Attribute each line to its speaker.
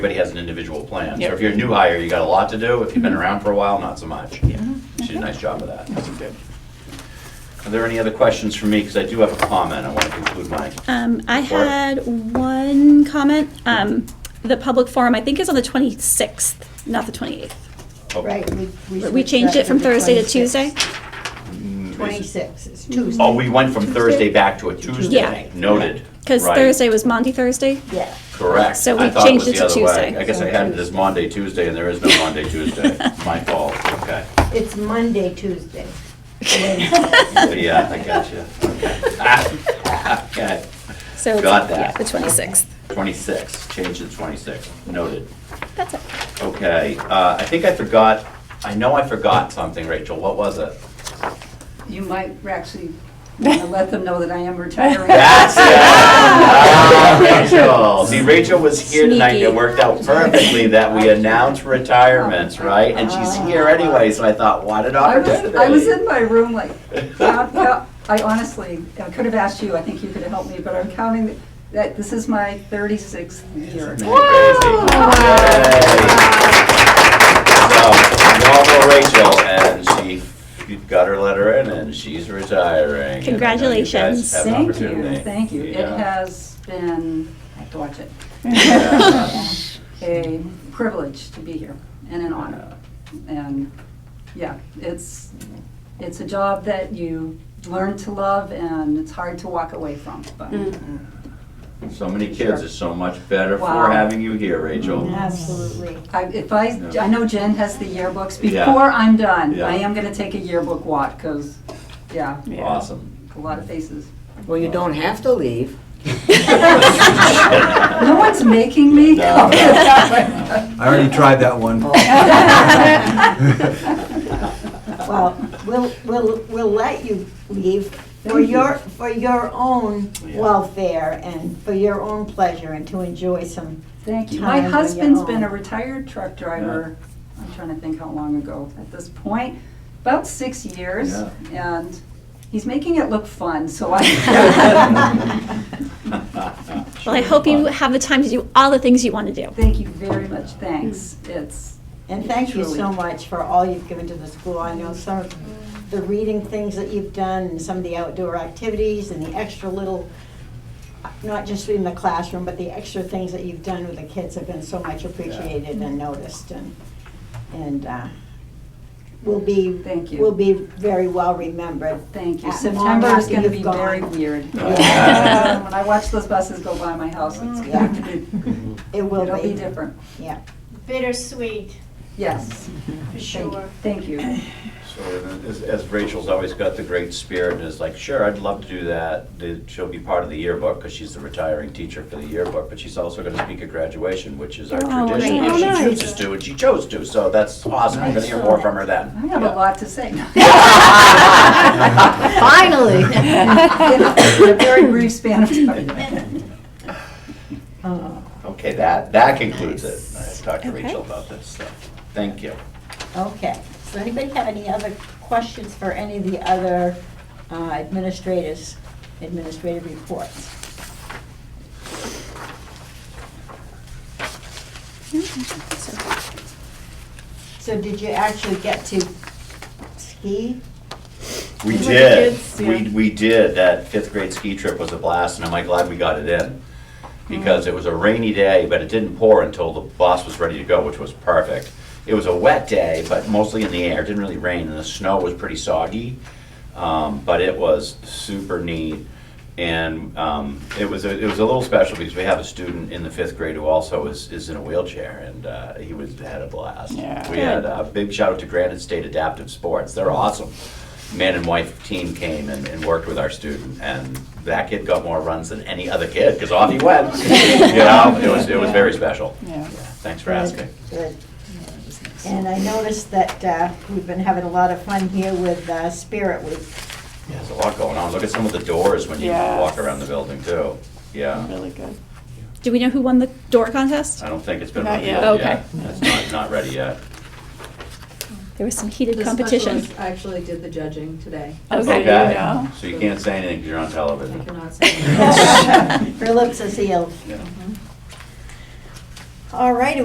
Speaker 1: everybody has an individual plan. So
Speaker 2: Yep.
Speaker 1: if you're a new hire, you got a lot to do. If you've
Speaker 3: Mm-hmm.
Speaker 1: been around for a while, not so much. She did a nice job of that. Are there any other questions for me? Because I do have a comment. I want to conclude my,
Speaker 3: Um, I
Speaker 1: Or-
Speaker 3: had one comment. Um, the public forum, I think, is on the 26th, not the 28th.
Speaker 1: oh,
Speaker 4: Right, we- we.
Speaker 3: We changed it from Thursday to Mm-hmm. Tuesday.
Speaker 4: Twenty-six, it's Tuesday.
Speaker 1: oh, we went from Thursday back to a Tuesday.
Speaker 3: Yeah.
Speaker 1: Noted.
Speaker 3: Because
Speaker 1: Right.
Speaker 3: Thursday was Monty Thursday.
Speaker 4: Yeah.
Speaker 1: Correct.
Speaker 3: So we
Speaker 1: I thought was
Speaker 3: changed
Speaker 1: the
Speaker 3: it to
Speaker 1: other way.
Speaker 3: Tuesday.
Speaker 1: I guess I had it as Monday, Tuesday, and there is no Monday, Tuesday. My fault, okay.
Speaker 4: It's Monday, Tuesday.
Speaker 1: Yeah, I got you. Okay.
Speaker 3: So it's-
Speaker 1: Got that.
Speaker 3: yeah, the 26th.
Speaker 1: 26, change to 26, noted.
Speaker 3: That's it.
Speaker 1: Okay, uh, I think I forgot, I know I forgot something, Rachel, what was it?
Speaker 5: You might actually want to let them know that I am retiring.
Speaker 1: That's it! Ah, Rachel, see, Rachel was here tonight, and it
Speaker 3: Sneaky.
Speaker 1: worked out perfectly that we announced retirements, right? And she's
Speaker 3: Ah.
Speaker 1: here anyway, so I thought, what an
Speaker 5: I was,
Speaker 1: opportunity.
Speaker 5: I was in my room like, count- count- I honestly, I could have asked you, I think you could have helped me, but I'm counting that this is my 36th year.
Speaker 1: Isn't that Crazy. Yay. So, you all know Rachel, and she got her letter in, and she's retiring. and I know you guys
Speaker 3: Congratulations.
Speaker 1: have an
Speaker 5: Thank you,
Speaker 1: opportunity.
Speaker 5: thank you. It
Speaker 1: Yeah.
Speaker 5: has been, I have to watch it,
Speaker 1: Yeah.
Speaker 5: a privilege to be here and an honor. And, yeah, it's, it's a job that you learn to love and it's hard to walk away from, but
Speaker 1: So many kids, it's so much better for
Speaker 5: Wow.
Speaker 1: having you here, Rachel.
Speaker 4: Absolutely.
Speaker 5: I, if I, I know Jen has the yearbooks.
Speaker 1: Yeah.
Speaker 5: Before I'm done,
Speaker 1: Yeah.
Speaker 5: I am gonna take a yearbook walk, cause, yeah,
Speaker 1: Awesome.
Speaker 5: a lot of faces.
Speaker 6: Well, you don't have to leave.
Speaker 5: No one's making me.
Speaker 1: No,
Speaker 7: I already tried that one.
Speaker 4: Well, we'll, we'll, we'll let you leave for
Speaker 3: Mm-hmm.
Speaker 4: your, for your own
Speaker 1: Yeah.
Speaker 4: welfare and for your own pleasure and to enjoy some,
Speaker 5: Thank you.
Speaker 4: Time
Speaker 5: My
Speaker 4: on your
Speaker 5: husband's
Speaker 4: own.
Speaker 5: been a retired truck driver, I'm trying to think how long ago at this point, about six years. And he's making it look fun, so I,
Speaker 3: Well, I hope you have the time to do all the things you want to do.
Speaker 5: thank you very much, thanks. It's,
Speaker 4: and thank you so
Speaker 5: Truly.
Speaker 4: much for all you've given to the school. I know some of the reading things that you've done and some of the outdoor activities and the extra little, not just in the classroom, but the extra things that you've done with the kids have been so much appreciated and noticed and, and, uh, will be.
Speaker 5: Thank you.
Speaker 4: Will be very well remembered
Speaker 5: Thank you.
Speaker 4: At
Speaker 5: September
Speaker 4: long
Speaker 5: is going to
Speaker 4: after
Speaker 5: be
Speaker 4: you've gone.
Speaker 5: very weird.
Speaker 1: Yeah.
Speaker 5: Um, When I watch those buses go by my house, it's going to be,
Speaker 4: It will
Speaker 5: it'll be different.
Speaker 4: Yeah.
Speaker 8: bittersweet,
Speaker 5: Yes,
Speaker 8: for
Speaker 5: thank
Speaker 8: sure.
Speaker 5: thank you.
Speaker 1: So and as- as Rachel's always got the great spirit and is like, sure, I'd love to do that. The- She'll be part of the yearbook because she's the retiring teacher for the yearbook, but she's also going to speak at graduation, which is our
Speaker 3: Oh,
Speaker 1: tradition.
Speaker 3: great.
Speaker 1: If
Speaker 3: Oh,
Speaker 1: she chooses to, and she chose to, so that's awesome. We're going to hear more from her
Speaker 5: I
Speaker 1: then.
Speaker 5: have a lot to say.
Speaker 6: Finally.
Speaker 5: In a very brief span of time.
Speaker 1: Okay, that, that concludes it. I talked to
Speaker 3: Okay.
Speaker 1: Rachel about this stuff. Thank you.
Speaker 4: Okay. Does anybody have any other questions for any of the other uh, administrators, administrative reports? So did you actually get to ski?
Speaker 1: We
Speaker 8: With the
Speaker 1: did.
Speaker 8: kids,
Speaker 1: We,
Speaker 8: yeah.
Speaker 1: we did. That fifth grade ski trip was a blast, and am I glad we got it in? Because it was a rainy day, but it didn't pour until the bus was ready to go, which was perfect. It was a wet day, but mostly in the air. It didn't really rain, and the snow was pretty soggy. Um, but it was super neat. And um, it was a, it was a little special because we have a student in the fifth grade who also is, is in a wheelchair, and uh, he was had a blast.
Speaker 2: Yeah.
Speaker 1: We had a big shout out to Granite State Adaptive Sports. They're awesome. Man and wife team came and, and worked with our student, and that kid got more runs than any other kid because off he went. you know, it was it was very special.
Speaker 2: Yeah.
Speaker 1: Thanks for asking.
Speaker 4: Good. And I noticed that uh, we've been having a lot of fun here with uh, Spirit Week.
Speaker 1: Yeah, there's a lot going on. Look at some of the doors when you
Speaker 2: Yes.
Speaker 1: walk around the building too. Yeah.
Speaker 2: Really good.
Speaker 3: Do we know who won the door contest?
Speaker 1: I don't think it's been
Speaker 2: Not
Speaker 1: revealed
Speaker 2: yet.
Speaker 1: yet.
Speaker 3: Okay.
Speaker 1: It's not, not ready yet.
Speaker 3: There was some heated
Speaker 9: The
Speaker 3: competition.
Speaker 9: specialist actually did the judging today.
Speaker 2: Okay, you know.
Speaker 1: So you can't say anything because you're on television.
Speaker 9: I cannot say.
Speaker 4: Her lips are sealed.
Speaker 1: Yeah.
Speaker 4: All righty,